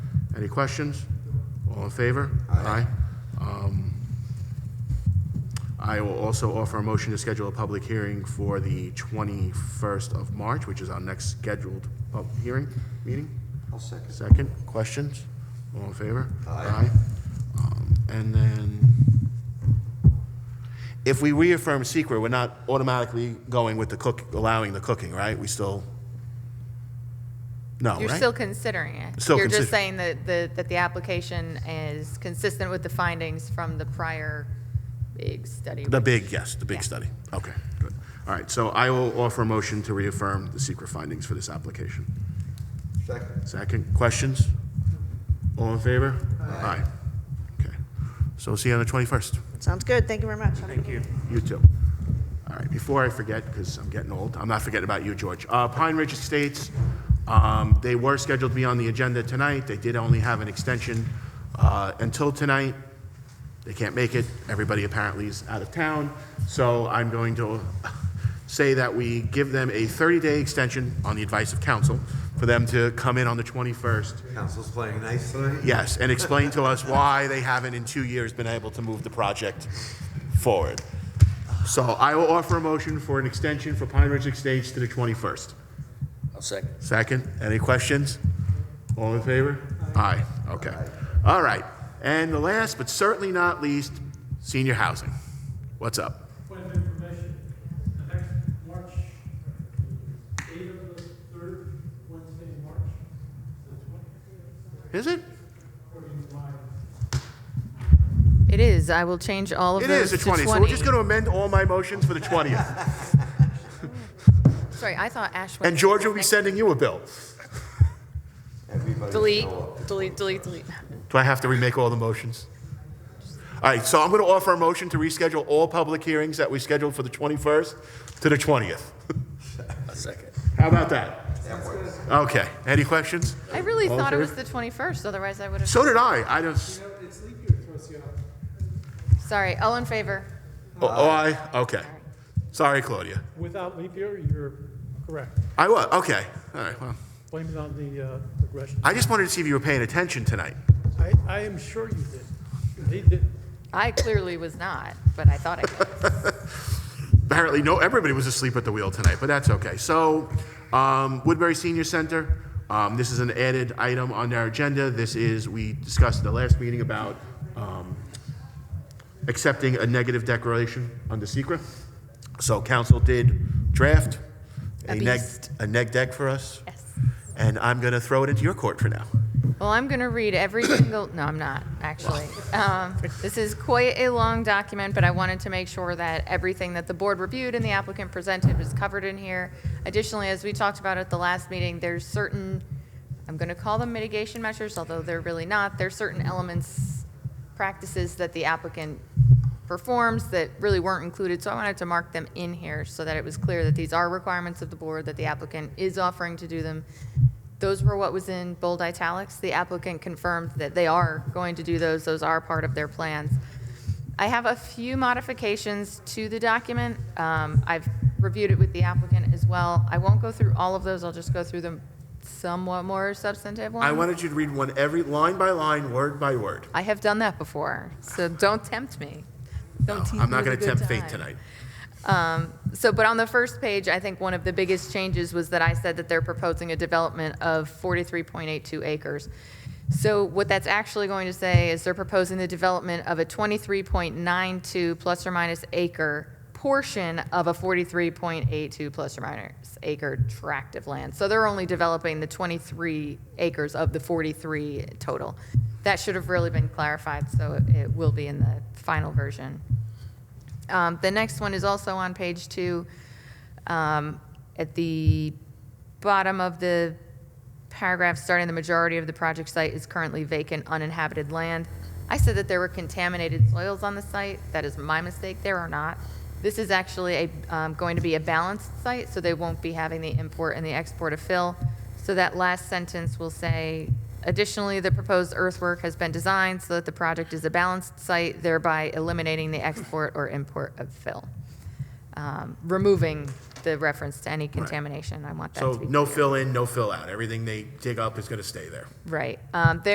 Any questions? All in favor? Aye. Um, I will also offer a motion to schedule a public hearing for the 21st of March, which is our next scheduled pub- hearing, meeting. I'll second. Second, questions? All in favor? Aye. Um, And then, if we reaffirm secret, we're not automatically going with the cook, allowing the cooking, right? We still, no, right? You're still considering it. Still You're consider- just saying that the, that the application is consistent with the findings from the prior big study. The which- big, yes, the big Yeah. study. Okay, good. All right, so I will offer a motion to reaffirm the secret findings for this application. Second. Second, questions? All in favor? Aye. Okay, so see you on the 21st. Sounds good. Thank you very much. Thank you. You too. All right, before I forget, because I'm getting old, I'm not forgetting about you, George. Uh, Pine Ridge Estates, um, they were scheduled to be on the agenda tonight. They did only have an extension uh, until tonight. They can't make it. Everybody apparently is out of town. So I'm going to say that we give them a 30-day extension on the advice of council for them to come in on the 21st Council's playing nice tonight? Yes, and explain to us why they haven't in two years been able to move the project forward. So I will offer a motion for an extension for Pine Ridge Estates to the 21st. I'll second. Second, any questions? All in favor? Aye, okay. All right, and the last but certainly not least, senior housing. What's up? Point of information, the next March, eight of the third Wednesday in March, the twentieth, Is it? according to my It is. I will change all of It those is the to 20th, twenty. so we're just going to amend all my motions for the 20th. Sorry, I thought Ash. And George will be sending you a bill. Everybody Delete, show up. delete, delete, delete. Do I have to remake all the motions? All right, so I'm going to offer a motion to reschedule all public hearings that we scheduled for the 21st to the 20th. I'll second. How about that? That works. Okay, any questions? I really All in thought it favor? was the twenty-first, otherwise I would have. So did I, I just, Sorry, all in favor? oh, oh, I, okay. Sorry, Claudia. Without leap year, you're correct. I was, okay, all right, well. Blame it on the uh, regression. I just wanted to see if you were paying attention tonight. I, I am sure you did. They did. I clearly was not, but I thought I was. Apparently, no, everybody was asleep at the wheel tonight, but that's okay. So, um, Woodbury Senior Center, um, this is an added item on our agenda. This is, we discussed at the last meeting about, um, accepting a negative declaration under secret. So council did draft A a neg, beast. a neg deck for us, Yes. and I'm gonna throw it into your court for now. Well, I'm going to read every single, no, I'm not, actually. Um, This is quite a long document, but I wanted to make sure that everything that the board reviewed and the applicant presented was covered in here. Additionally, as we talked about at the last meeting, there's certain, I'm going to call them mitigation measures, although they're really not. There's certain elements, practices that the applicant performs that really weren't included, so I wanted to mark them in here so that it was clear that these are requirements of the board, that the applicant is offering to do them. Those were what was in bold italics. The applicant confirmed that they are going to do those, those are part of their plans. I have a few modifications to the document. Um, I've reviewed it with the applicant as well. I won't go through all of those, I'll just go through the somewhat more substantive ones. I wanted you to read one every, line by line, word by word. I have done that before, so don't tempt me. Don't No, tempt me I'm not with a gonna good tempt fate time. tonight. So, but on the first page, I think one of the biggest changes was that I said that they're proposing a development of 43.82 acres. So what that's actually going to say is they're proposing the development of a 23.92 plus or minus acre portion of a 43.82 plus or minus acre tract of land. So they're only developing the 23 acres of the 43 total. That should have really been clarified, so it- it will be in the final version. Um, The next one is also on page two. Um, At the bottom of the paragraph, starting the majority of the project site is currently vacant uninhabited land. I said that there were contaminated soils on the site. That is my mistake. There are not. This is actually a, um, going to be a balanced site, so they won't be having the import and the export of fill. So that last sentence will say, additionally, the proposed earthwork has been designed so that the project is a balanced site, thereby eliminating the export or import of fill. Um, Removing the reference to any contamination. I want that to So be. no clear. fill in, no fill out. Everything they dig up is gonna stay there. Right. Um, there